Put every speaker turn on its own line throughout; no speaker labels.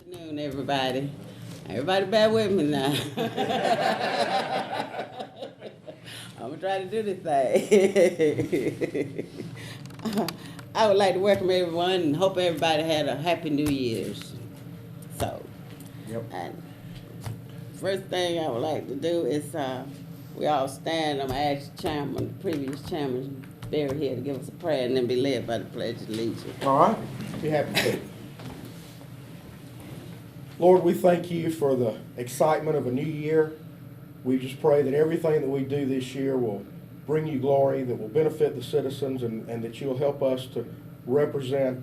afternoon, everybody. Everybody bear with me now. I'm gonna try to do this thing. I would like to welcome everyone and hope everybody had a happy New Year's. So,
Yep.
and first thing I would like to do is, uh, we all stand, I'm gonna ask the chairman, the previous chairman, Barry here to give us a prayer and then be led by the pledge of allegiance.
All right, be happy to. Lord, we thank you for the excitement of a new year. We just pray that everything that we do this year will bring you glory, that will benefit the citizens, and, and that you'll help us to represent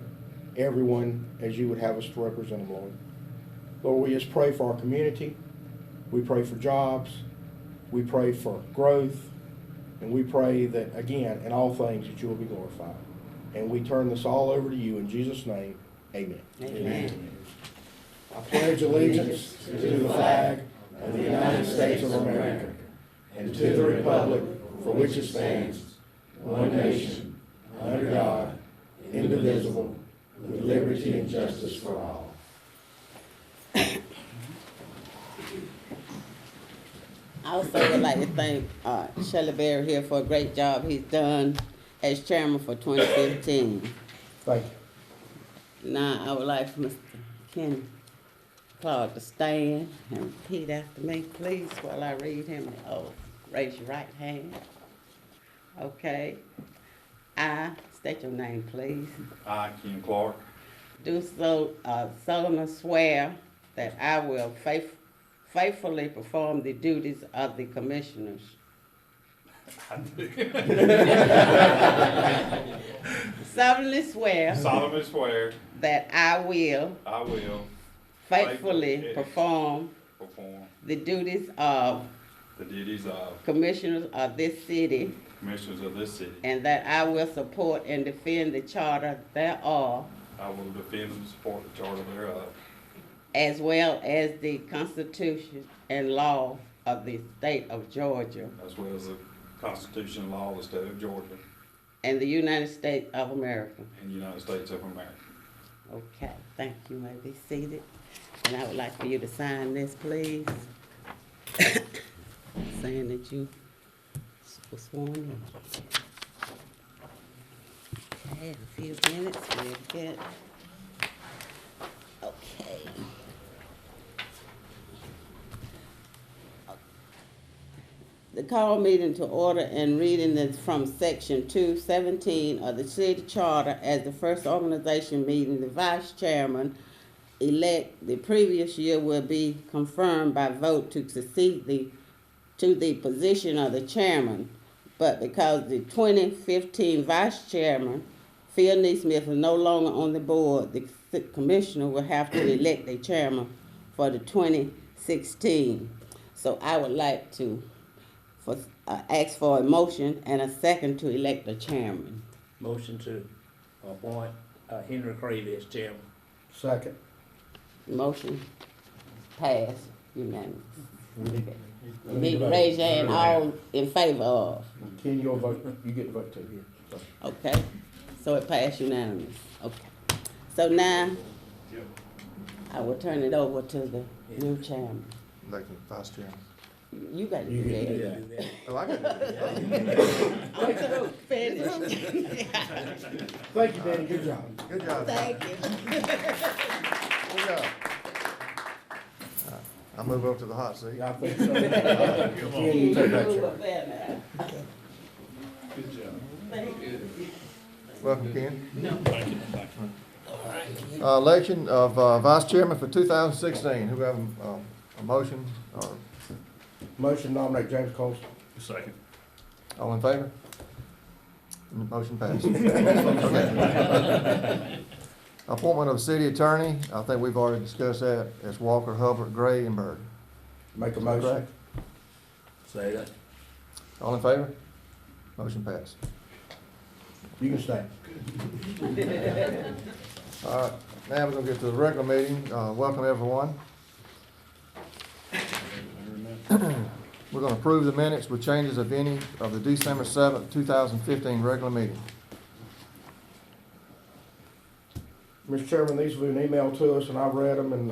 everyone as you would have us to represent them, Lord. Lord, we just pray for our community. We pray for jobs. We pray for growth. And we pray that, again, in all things, that you will be glorified. And we turn this all over to you in Jesus' name. Amen.
Amen.
I pledge allegiance to the flag of the United States of America and to the republic for which it stands, one nation, under God, indivisible, with liberty and justice for all.
I also would like to thank uh, Shelley Berry here for a great job he's done as chairman for 2015.
Thank you.
Now, I would like for Mr. Ken Clark to stand and repeat after me, please, while I read him the oath. Raise your right hand. Okay. I, state your name, please.
I, Ken Clark,
Do so uh, solemnly swear that I will faith- faithfully perform the duties of the commissioners. solemnly swear
solemnly swear
that I will
I will
faithfully
Faithfully.
perform
perform
the duties of
the duties of
commissioners of this city
commissioners of this city.
and that I will support and defend the charter thereof
I will defend and support the charter thereof,
as well as the Constitution and law of the state of Georgia
as well as the Constitution and law of the state of Georgia
and the United States of America.
and the United States of America.
Okay, thank you, You may be seated. And I would like for you to sign this, please. Saying that you s- were sworn in. Okay, in a few minutes, we'll get. Okay. The call meeting to order and reading is from section two seventeen of the city charter as the first organization meeting, the vice chairman elect the previous year will be confirmed by vote to succeed the, to the position of the chairman. But because the twenty fifteen vice chairman, Phil Neesmith, is no longer on the board, the c- commissioner will have to elect a chairman for the twenty sixteen. So I would like to for, uh, ask for a motion and a second to elect a chairman.
Motion to appoint uh, Henry Cravey as chairman.
Second.
Motion passed unanimous. Big raise your hand, all in favor of,
Ken, you'll vote, you get to vote too. So,
okay? So it passed unanimous, okay. So now, I will turn it over to the new chairman.
Elected vice chairman.
You got to do that.
Do that.
Oh, I can do that.
I'm through, finished.
Thank you, Danny, good job.
Good job. Thank
Thank you.
Good job. I move over to the hot seat.
I think so. Ken, uh, you take that
Move
chair.
up there now.
Welcome, Ken. Uh, Election of uh, vice chairman for 2016. Who have um, a motion or
Motion nominate James Colson.
Second.
all in favor? Motion passed. Appointment of city attorney. I think we've already discussed that. It's Walker, Hubbard, Gray, and Bird.
Make a
Correct.
motion.
Say that.
All in favor? Motion passed.
You can stay.
All right, now we're gonna get to the regular meeting. Uh, welcome everyone. We're gonna approve the minutes with changes of any of the December seventh, two thousand fifteen regular meeting.
Mr. Chairman, these were an email to us, and I've read them, and